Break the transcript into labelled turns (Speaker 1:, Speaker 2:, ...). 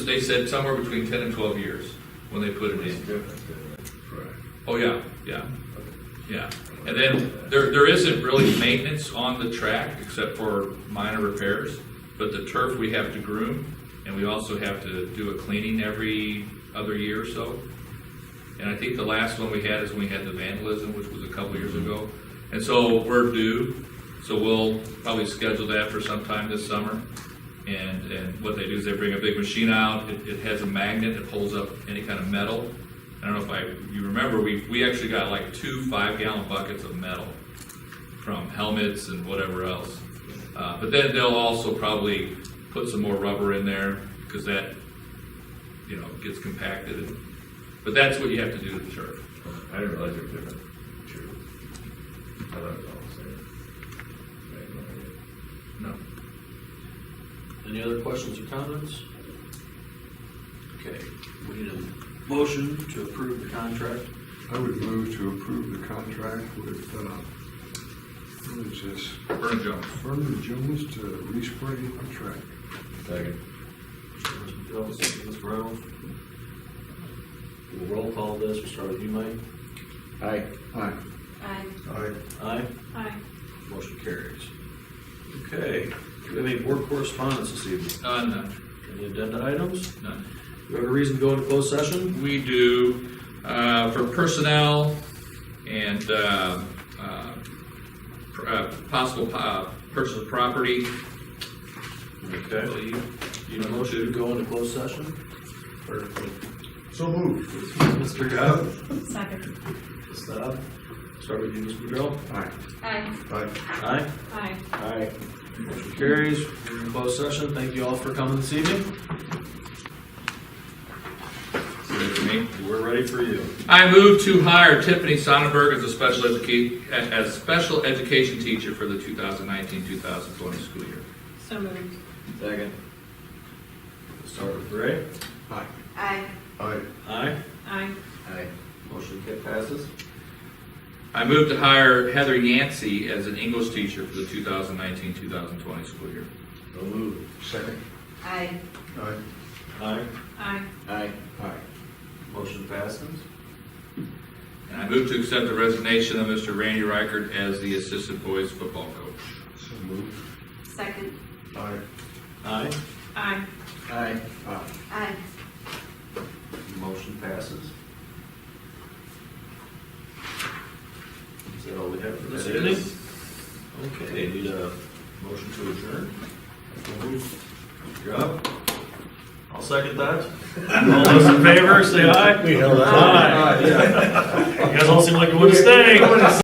Speaker 1: They said somewhere between ten and twelve years when they put it in. Oh, yeah, yeah, yeah. And then there, there isn't really maintenance on the track except for minor repairs. But the turf we have to groom and we also have to do a cleaning every other year or so. And I think the last one we had is when we had the vandalism, which was a couple years ago. And so we're due, so we'll probably schedule that for sometime this summer. And, and what they do is they bring a big machine out, it, it has a magnet that pulls up any kind of metal. I don't know if I, you remember, we, we actually got like two five gallon buckets of metal from helmets and whatever else. Uh, but then they'll also probably put some more rubber in there, because that, you know, gets compacted and but that's what you have to do to the turf.
Speaker 2: I didn't realize they were different. Sure. I thought it was all the same. I had no idea.
Speaker 1: No.
Speaker 3: Any other questions or comments? Okay, we need a motion to approve the contract.
Speaker 4: I would move to approve the contract with, uh, what is this,
Speaker 1: Vernon Jones.
Speaker 4: Vernon Jones to respray the track.
Speaker 2: Second.
Speaker 3: Mr. McDonald, second, Mr. Reynolds. We'll roll call this, we'll start with you, Mike.
Speaker 2: Aye.
Speaker 4: Aye.
Speaker 5: Aye.
Speaker 4: Aye.
Speaker 3: Aye,
Speaker 5: Aye.
Speaker 3: motion carries. Okay, do we have any board correspondence this evening?
Speaker 1: Uh, none,
Speaker 3: Any agenda items?
Speaker 1: none.
Speaker 3: Do we have a reason to go into closed session?
Speaker 1: We do, uh, for personnel and, uh, uh, pr- uh, possible, po- uh, purchase of property.
Speaker 3: Okay.
Speaker 1: So you-
Speaker 3: Do you have a motion to go into closed session?
Speaker 4: So moved.
Speaker 3: Mr. Gov?
Speaker 5: Second.
Speaker 3: Stop. Start with you, Mr. McDonald.
Speaker 4: Aye.
Speaker 5: Aye.
Speaker 4: Aye.
Speaker 3: Aye.
Speaker 5: Aye.
Speaker 3: Aye. Motion carries. We're in closed session. Thank you all for coming this evening.
Speaker 1: you mean?
Speaker 3: We're ready for you.
Speaker 1: I move to hire Tiffany Sonnenberg as a special educa, as a special education teacher for the 2019-2020 school year.
Speaker 5: So moved.
Speaker 3: Second. Start with Ray.
Speaker 4: Aye.
Speaker 5: Aye.
Speaker 4: Aye.
Speaker 3: Aye.
Speaker 5: Aye.
Speaker 3: Aye. Motion ca- passes.
Speaker 1: I move to hire Heather Yancey as an English teacher for the 2019-2020 school year.
Speaker 3: No move.
Speaker 4: Second.
Speaker 5: Aye.
Speaker 4: Aye.
Speaker 3: Aye.
Speaker 5: Aye.
Speaker 3: Aye.
Speaker 4: Aye.
Speaker 3: Motion passes.
Speaker 1: And I move to accept the resignation of Mr. Randy Reichert as the assistant boys football coach.
Speaker 4: So moved.
Speaker 5: Second.
Speaker 4: Aye.
Speaker 3: Aye.
Speaker 5: Aye.
Speaker 3: Aye.
Speaker 4: Aye.
Speaker 5: Aye.
Speaker 3: Motion passes. Is that all we have for this
Speaker 1: That
Speaker 3: evening?
Speaker 1: is-
Speaker 3: Okay, need a motion to adjourn? You're up. I'll second that. All those in favor, say aye. We held Aye. You guys all seem like you want to stay.